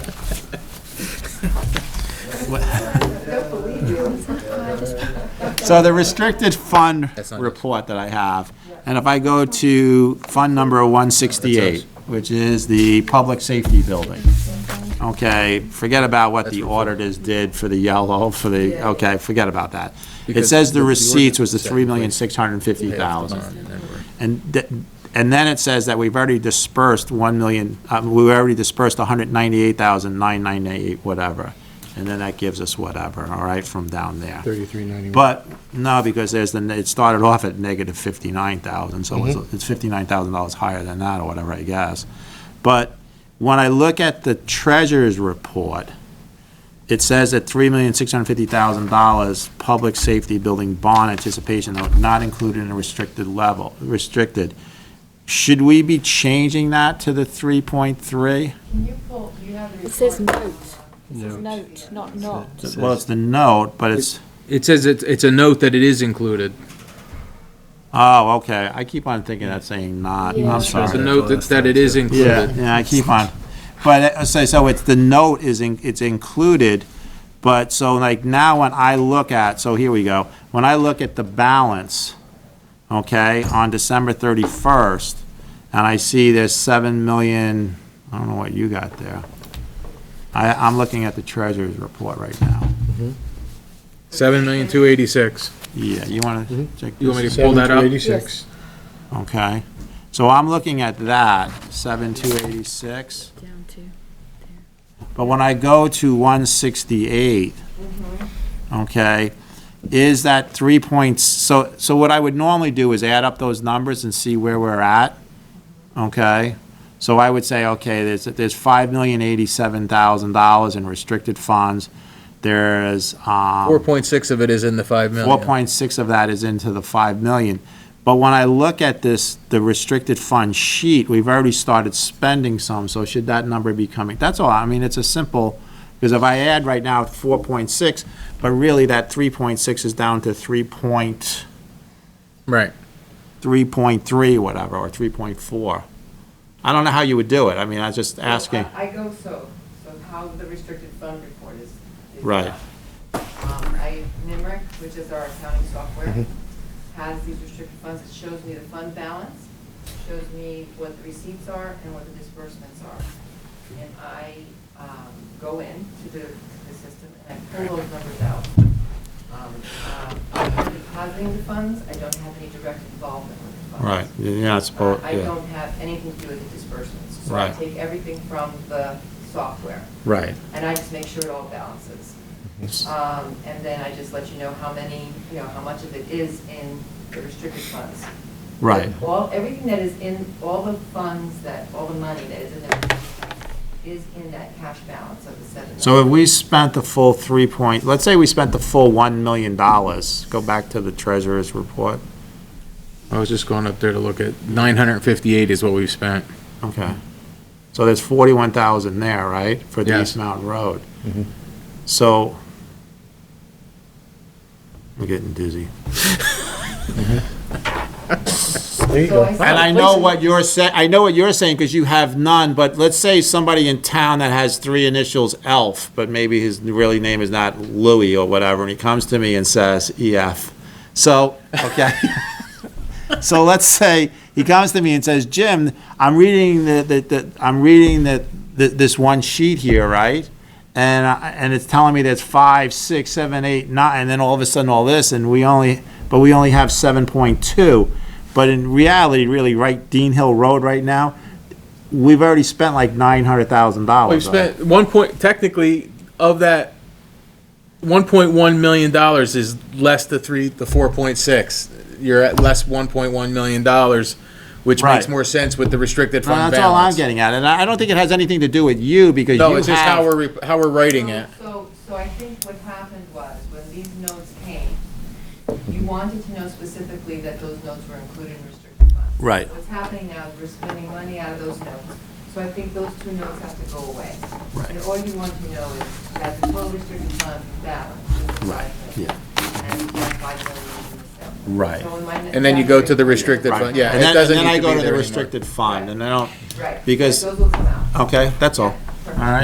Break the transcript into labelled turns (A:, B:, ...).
A: So the restricted fund
B: That's not-
A: report that I have, and if I go to fund number 168, which is the public safety building, okay, forget about what the auditors did for the yellow, for the, okay, forget about that. It
B: Because
A: says the
B: the- the
A: receipts was the
B: ordinance is in place. Yeah,
A: 3,650,000.
B: it's not in there.
A: And, th- and then it says that we've already dispersed 1 million, uh, we already dispersed 198,998, whatever. And then that gives us whatever, all right, from down there.
C: Thirty-three ninety-one.
A: But, no, because there's the, it started off at negative 59,000, so it's it's $59,000 higher than that, or whatever, I guess. But when I look at the treasurer's report, it says that $3,650,000 public safety building bond anticipation note not included in a restricted level, restricted. Should we be changing that to the 3.3?
D: Can you pull, do you have the
E: It says
D: report?
E: note. It says note, not not.
A: Well, it's the note, but it's,
B: It says it's, it's a note that it is included.
A: oh, okay, I keep on thinking that's saying not,
E: Yeah.
A: I'm
E: It's
A: sorry.
B: It's a note that, that it is
A: Yeah,
B: included.
A: yeah, I keep on. But, uh, so, so it's, the note is, in- it's included, but, so like now when I look at, so here we go. When I look at the balance, okay, on December 31st, and I see there's 7 million, I don't know what you got there. I, I'm looking at the treasurer's report right now.
B: Seven million, two eighty-six.
A: Yeah, you want to check
B: Mm-hmm. You want me
A: this?
B: to pull that up?
C: Eighty-six.
A: Okay. So I'm looking at that, 7,286.
E: Down to.
A: But when I go to 168, okay, is that three points, so, so what I would normally do is add up those numbers and see where we're at, okay? So I would say, okay, there's, there's $5,087,000 in restricted funds. There's, um.
B: Four point six of it is in the five million.
A: Four point six of that is into the five million. But when I look at this, the restricted fund sheet, we've already started spending some, so should that number be coming? That's all, I mean, it's a simple, because if I add right now four point six, but really that three point six is down to three point,
B: Right.
A: three point three, whatever, or three point four. I don't know how you would do it, I mean, I was just asking.
D: I I go so, so how the restricted fund report is. is
A: Right.
D: done. Um, I, NIMRIC, which is our accounting software,
A: Mm-hmm.
D: has these restricted funds, it shows me the fund balance, shows me what the receipts are and what the disbursements are. And I, um, go in to the, the system and I pull those numbers out. Um, uh, I'm depositing the funds, I don't have any direct involvement with the funds.
A: Yeah, I
D: Uh,
A: suppose,
D: I don't have anything to do with the disbursements. So I
A: Right.
D: take everything from the software,
A: Right.
D: and I just make sure it all balances. Um, And then I just let you know how many, you know, how much of it is in the restricted funds.
A: Right.
D: But All, everything that is in, all the funds that, all the money that is in there is in that cash balance of the seven.
A: So if we spent the full three point, let's say we spent the full one million dollars, go back to the treasurer's report.
B: I was just going up there to look at, nine hundred and fifty-eight is what we've spent.
A: Okay. So there's forty-one thousand there, right, for the
B: Yes.
A: East Mountain Road? So, I'm getting dizzy.
C: There you
D: So
C: go.
D: I
A: And
D: said-
A: I know what you're saying, I know what you're saying, because you have none, but let's say somebody in town that has three initials Elf, but maybe his really name is not Louis or whatever, and he comes to me and says EF. So, okay. So let's say he comes to me and says, Jim, I'm reading the, the, the, I'm reading the, the, this one sheet here, right? And, I- and it's telling me there's five, six, seven, eight, nine, and then all of a sudden all this, and we only, but we only have seven point two. But in reality, really, right, Dean Hill Road right now, we've already spent like nine hundred thousand dollars.
B: We've spent one point, technically, of that, one point one million dollars is less the three, the four point six. You're at less one point one million dollars, which
A: Right.
B: makes more sense with the restricted
A: Well,
B: fund
A: That's all I'm
B: balance.
A: getting at, and I I don't think it has anything to do with you, because you have.
B: No, it's just how we're, rep- how we're writing it.
D: So, so I think what happened was, when these notes came, you wanted to know specifically that those notes were included in restricted funds.
A: Right.
D: What's happening now is we're spending money out of those notes, so I think those two notes have to go away.
A: Right.
D: And all you want to know is that the total restricted fund balance. is the
A: Right,
D: five
A: yeah.
D: million. And that's why they're using this note.
A: Right.
D: So in my
B: And then you go to the restricted
A: Right.
B: fund, yeah,
A: And
B: it
A: then, and
B: doesn't
A: then I
B: need to
A: go
B: be
A: to the
B: there anymore.
A: restricted fund, and I don't,
D: Right.
A: because-
D: Those will come out.
A: okay, that's all.